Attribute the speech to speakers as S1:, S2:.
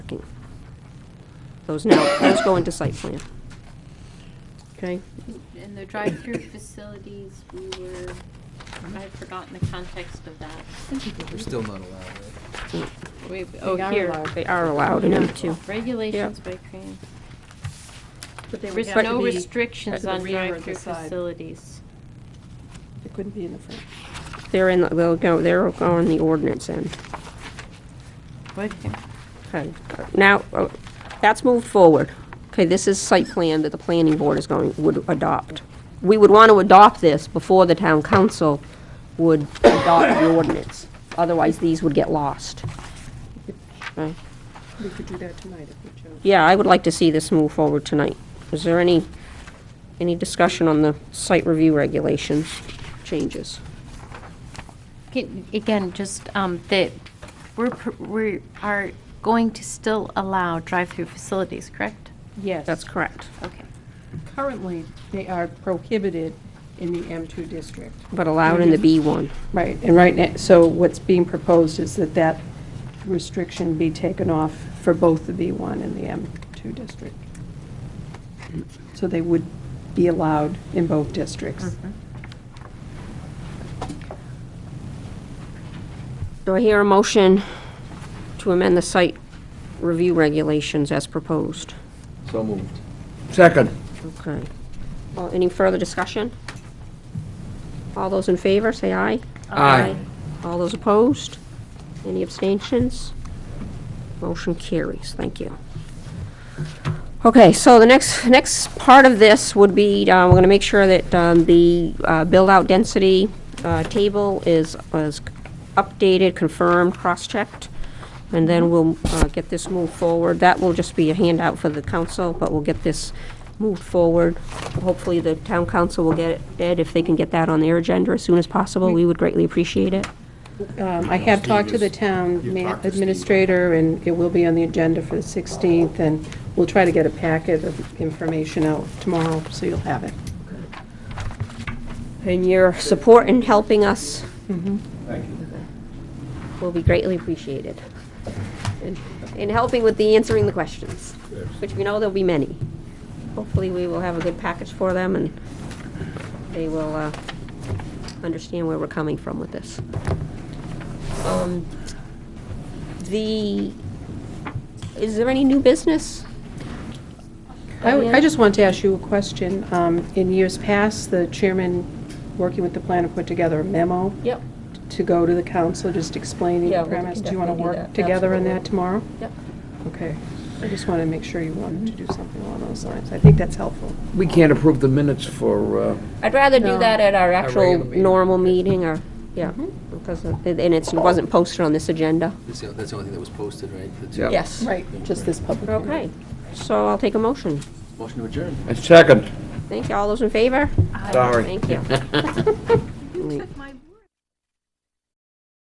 S1: parking. Those now, those go into site plan. Okay?
S2: And the drive-through facilities, we were, I've forgotten the context of that.
S3: We're still not allowed, right?
S2: We,
S1: Oh,
S2: oh, here.
S1: They are allowed in M2.
S2: Regulations by CREAM.
S4: But they
S2: There
S4: would
S2: was
S4: have
S2: no
S4: to be, at
S2: restrictions
S4: the
S2: on
S4: rear or the
S2: drive-through
S4: side.
S2: facilities.
S4: it couldn't be in the front.
S1: They're in, the- they'll go, they're on the ordinance end.
S2: What?
S1: Okay, now, uh, that's moved forward. Okay, this is site plan that the planning board is going, would adopt. We would want to adopt this before the town council would adopt the ordinance. Otherwise, these would get lost. Okay.
S4: We could do that tonight if we chose.
S1: Yeah, I would like to see this move forward tonight. Is there any, any discussion on the site review regulations changes?
S2: Again- Again, just um, that we're, pr- we are going to still allow drive-through facilities, correct?
S4: Yes.
S1: That's correct.
S2: Okay.
S4: Currently, they are prohibited in the M2 district.
S1: But allowed in the B1.
S4: Right, and right now, so what's being proposed is that that restriction be taken off for both the B1 and the M2 district. So they would be allowed in both districts.
S1: Do I hear a motion to amend the site review regulations as proposed?
S3: So moved.
S5: Second.
S1: Okay. Well, any further discussion? All those in favor, say aye.
S5: Aye.
S1: All those opposed? Any abstentions? Motion carries, thank you. Okay, so the next, next part of this would be, uh, we're going to make sure that um, the uh, build-out density uh, table is, is updated, confirmed, cross-checked, and then we'll uh, get this moved forward. That will just be a handout for the council, but we'll get this moved forward. Hopefully, the town council will get it, Ed, if they can get that on their agenda as soon as possible, we would greatly appreciate it.
S4: Um, I have talked to the town ma- administrator, and it will be on the agenda for the 16th, and we'll try to get a packet of information out tomorrow, so you'll have it.
S1: And your support in helping us
S4: Mm-hmm.
S3: Thank you.
S1: will be greatly appreciated. And- And helping with the answering the questions, which we know there'll be many. Hopefully, we will have a good package for them, and they will uh, understand where we're coming from with this. Um, The, is there any new business?
S4: I I just want to ask you a question. Um, In years past, the chairman, working with the planner, put together a memo
S1: Yep.
S4: to go to the council, just explaining
S1: Yeah,
S4: the
S1: we can
S4: premise. Do you want to
S1: definitely do that.
S4: work together on
S1: Absolutely.
S4: that tomorrow?
S1: Yep.
S4: Okay. I just want to make sure you wanted to do something along those lines. I think that's helpful.
S5: We can't approve the minutes for, uh,
S1: I'd rather do that at our actual
S5: regular meeting.
S1: normal meeting, or, yeah, because, of- and it's- it wasn't posted on this agenda.
S3: That's the, that's the only thing that was posted, right? That's-
S5: Yeah.
S1: Yes.
S4: Right, just this public hearing.
S1: Okay, so I'll take a motion.
S3: Motion to adjourn.
S5: and second.
S1: Thank you. All those in favor?
S5: Sorry.
S1: Thank you.